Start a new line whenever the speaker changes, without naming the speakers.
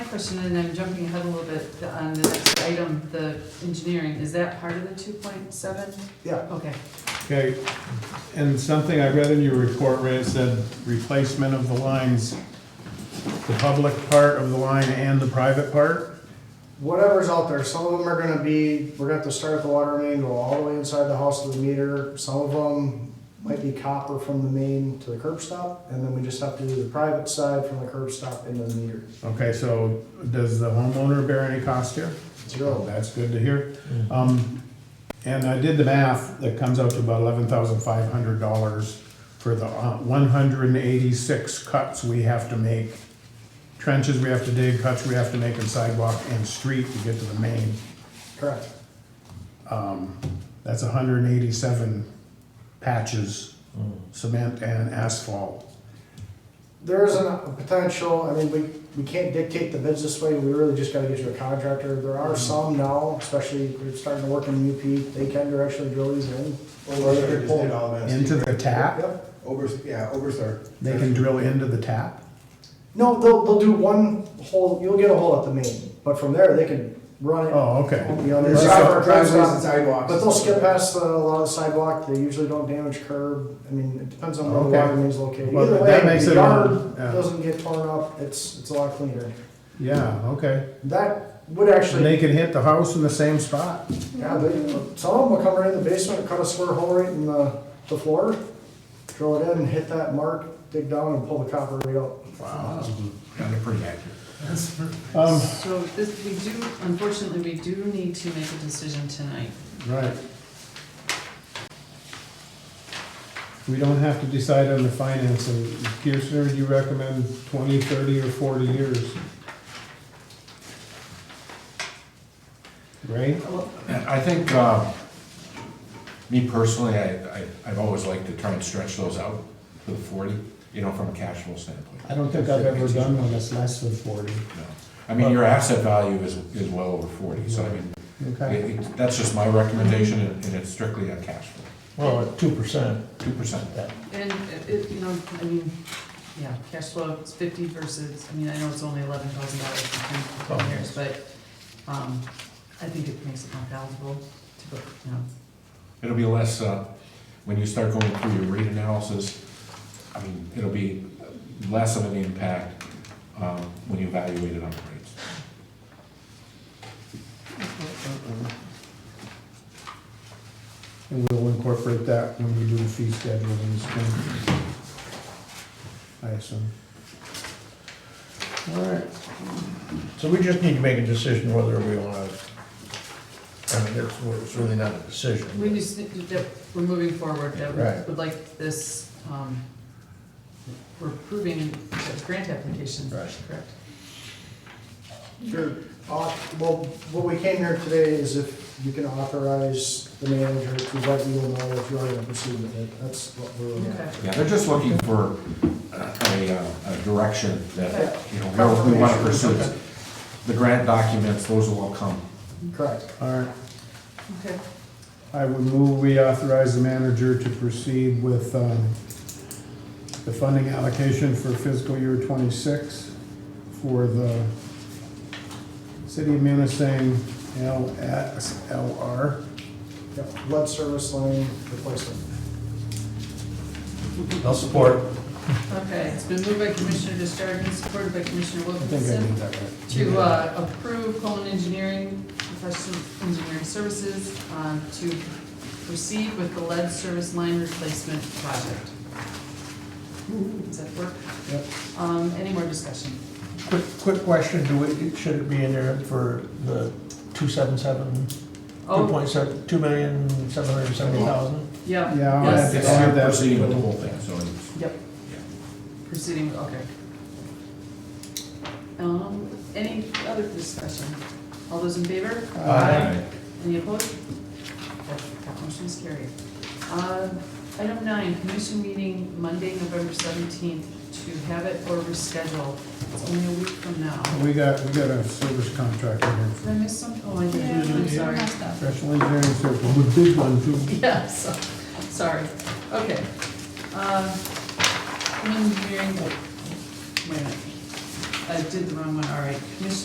question, and I'm jumping ahead a little bit on the next item, the engineering, is that part of the two point seven?
Yeah.
Okay,
Okay, and something I read in your report, Ray, it said replacement of the lines, the public part of the line and the private part?
Whatever's out there, some of them are gonna be, we're gonna have to start at the water main, go all the way inside the house to the meter. Some of them might be copper from the main to the curb stop, and then we just have to do the private side from the curb stop into the meter.
Okay, so does the homeowner bear any cost here? Oh,
Zero.
that's good to hear. Um, and I did the math, that comes out to about eleven thousand five hundred dollars for the uh, one hundred and eighty-six cuts we have to make. Trenches we have to dig, cuts we have to make, and sidewalk and street to get to the main.
Correct.
Um, that's hundred and eighty-seven patches, cement and asphalt.
There is a a potential, I mean, we, we can't dictate the bids this way, we really just gotta get to a contractor. There are some now, especially if you're starting to work in UP, they can directly drill these in.
Overstart just did all that.
Into the tap,
Yep.
Overs, yeah, Overstart.
they can drill into the tap?
No, they'll, they'll do one hole, you'll get a hole at the main, but from there, they can run it.
Oh, okay,
You know,
There's
there's
driveways
driveways
and
on-
sidewalks.
But they'll skip past uh, a lot of the sidewalk, they usually don't damage curb, I mean, it depends on where the
Okay.
water main's located.
Well,
Either
that
way,
makes
the
it
yard
on- yeah.
doesn't get torn up, it's, it's a lot cleaner.
yeah, okay.
That would
And
actually,
they can hit the house in the same spot?
yeah, they, some of them will come right in the basement, cut a square hole right in the, the floor, drill it in, and hit that mark, dig down and pull the copper right out.
Wow. Kind of pretty accurate. Um,
so this, we do, unfortunately, we do need to make a decision tonight.
right. We don't have to decide on the financing. Kirchner, do you recommend twenty, thirty, or forty years? Right?
I think, uh, me personally, I, I- I've always liked to try and stretch those out to the forty, you know, from a cash flow standpoint.
I don't think I've ever done one that's less than forty.
No. I mean, your asset value is, is well over forty, so I mean,
Okay.
it- it- that's just my recommendation, and and it's strictly a cash flow,
Well, at two percent,
two percent.
And uh, it, you know, I mean, yeah, cash flow is fifty versus, I mean, I know it's only eleven thousand dollars for ten- ten years, but, um, I think it makes it more palatable to, go, you know,
It'll be less, uh, when you start going through your rate analysis, I mean, it'll be less of an impact, um, when you evaluate it on the rates.
And we'll incorporate that when we do the fee schedule in the spring. I assume. All right.
so we just need to make a decision whether we wanna, I mean, it's, it's really not a decision.
we just, need to- that we're moving forward, that we
Right.
would like this, um, we're approving the grant application,
Right.
correct?
Sure. Uh, well, what we came here today is if you can authorize the manager to let you know if you're gonna proceed with it, that's what we're looking at.
Okay.
Yeah, they're just looking for a, uh, a direction that, you know, where we want to
Confirmation.
pursue this. The grant documents, those will all come.
Correct.
All right.
Okay.
I would move we authorize the manager to proceed with um, the funding allocation for fiscal year '26 for the City of Munising LSLR.
Yep, lead service line replacement.
I'll support.
Okay, it's been moved by Commissioner Justardens, supported by Commissioner
I think I did
Wilkinson,
that right.
to uh, approve Coleman Engineering Professional Engineering Services um, to proceed with the lead service line replacement project. Does that work?
Yep.
Um, Any more discussion?
Quick, quick question, do we, should it be in there for the two seven seven, two
Oh,
point seven, two million, seven hundred and seventy thousand?
yeah.
Yeah, I'll
yes.
add
It's
I'll add that.
proceeding with the whole thing, so it's,
Yep,
yeah.
proceeding, okay. Um, Any other discussion? All those in favor? Any opposed? That that motion is carried. Um, Item nine, commission meeting Monday, November seventeenth, to have it or reschedule. It's only a week from now.
We got, we got a service contract in here,
Did I miss something? Oh, I did, I'm sorry.
professional engineering service, a big one too.
Yeah, so, sorry, okay. Um, Engineering, wait a minute, I did the wrong one, all right. Commission